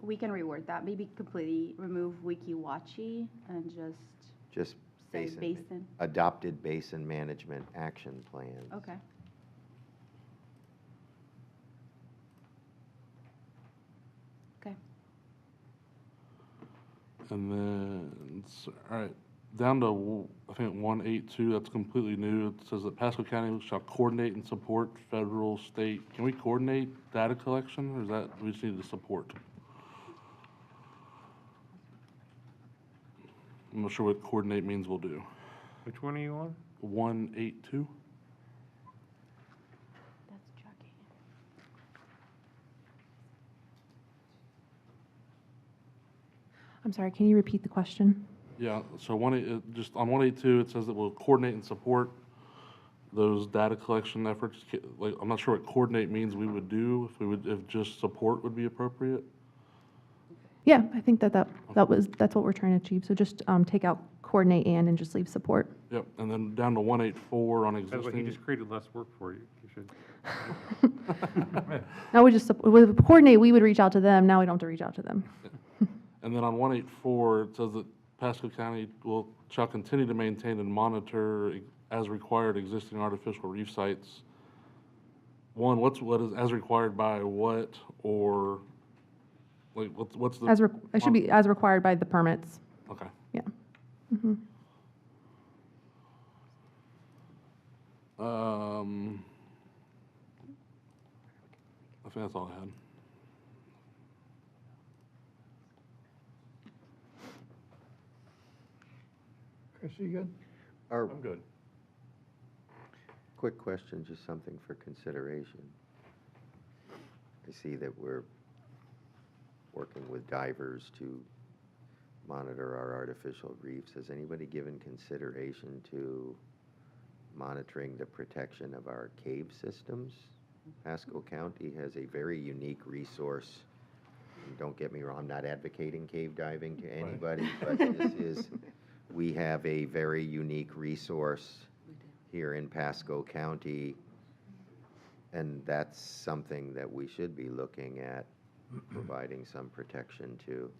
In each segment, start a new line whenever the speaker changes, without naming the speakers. we can reword that, maybe completely remove Wikiwachi and just
just
say
basin. ma-
basin.
Adopted basin management action plans.
Okay.
And then, s- all right, down to, w- I think, 182, that's completely new. It says that Pasco County shall coordinate and support federal, state. Can we coordinate data collection, or is that, we just need to support? I'm not sure what coordinate means we'll do.
Which one are you on?
182?
That's jogging.
I'm sorry, can you repeat the question?
Yeah, so one, eight- uh, just on 182, it says that we'll coordinate and support those data collection efforts. Ca- Like, I'm not sure what coordinate means we would do, if we would, if just support would be appropriate.
Yeah, I think that that, that was, that's what we're trying to achieve. So just um, take out coordinate and and just leave support.
Yep, and then down to 184 on
By the way, he
existing.
just created less work for you. You should.
Now we just, sup- with coordinate, we would reach out to them. Now we don't have to reach out to them.
And then on 184, it says that Pasco County will, shall continue to maintain and monitor e- as required existing artificial reef sites. One, what's, what is, as required by what, or, like, what's, what's the?
As, re- it should be as required by the permits.
Okay.
Yeah. Mm-hmm.
Um, I think that's all I had.
Chris, you good?
Or,
good.
quick question, just something for consideration. I see that we're working with divers to monitor our artificial reefs. Has anybody given consideration to monitoring the protection of our cave systems? Pasco County has a very unique resource. And Don't get me wrong, I'm not advocating cave diving to anybody, but this is, we have a very unique resource here in Pasco County. And that's something that we should be looking at, providing some protection to.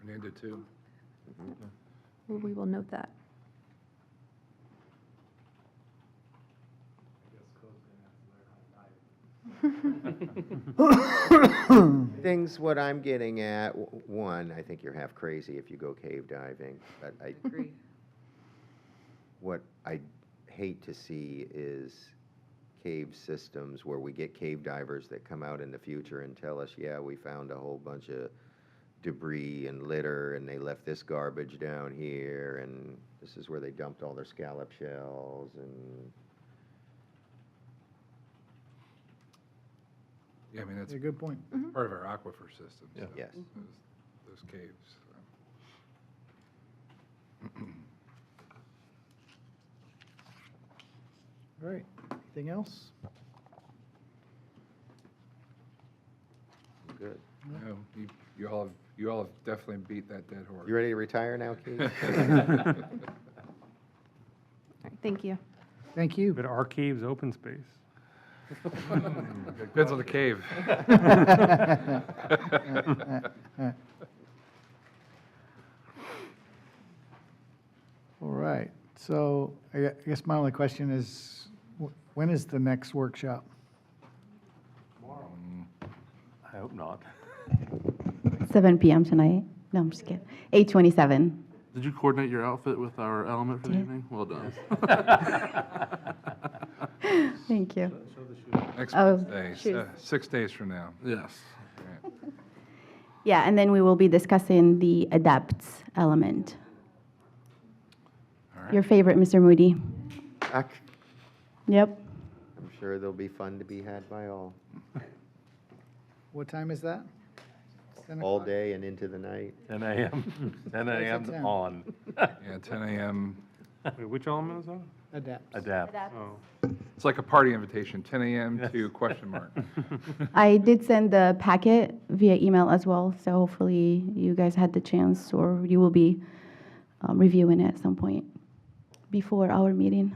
Fernando, too.
We- We will note that.
Things, what I'm getting at, w- one, I think you're half crazy if you go cave diving, but I. Agree. What I hate to see is cave systems where we get cave divers that come out in the future and tell us, yeah, we found a whole bunch of debris and litter, and they left this garbage down here, and this is where they dumped all their scallop shells, and
Yeah, I mean, that's
a good point.
Mm-hmm.
part of our aquifer system.
Yeah.
so
Yes.
those- Those caves. so.
All right, anything else?
good.
No, you, you all, have- you all have definitely beat that dead horse.
You ready to retire now, Keith?
All right, thank you.
Thank you.
But our cave's open space.
Mm-hmm. Depends on the cave. Mm-hmm.
All right, so I gue- I guess my only question is, wh- when is the next workshop?
I hope not.
Seven PM tonight? No, I'm just kidding. Eight twenty-seven.
Did you coordinate your outfit with our element for the evening? Well done.
Thank you.
Next
Oh,
Wednesday,
shoot.
so six days from now.
Yes.
Yeah, and then we will be discussing the adapts element.
All right.
Your favorite, Mr. Moody.
Ac-
Yep.
I'm sure there'll be fun to be had by all,
What time is that? 10
all
o'clock?
day and into the night.
10 a.m., 10
Starts at
a.m. 's
10.
on,
Yeah, ten AM.
Wait, which element is that?
Adapts.
adapt.
Oh.
It's like a party invitation, ten AM to question mark.
I did send the packet via email as well, so hopefully you guys had the chance uh, or you will be um, reviewing it at some point before our meeting.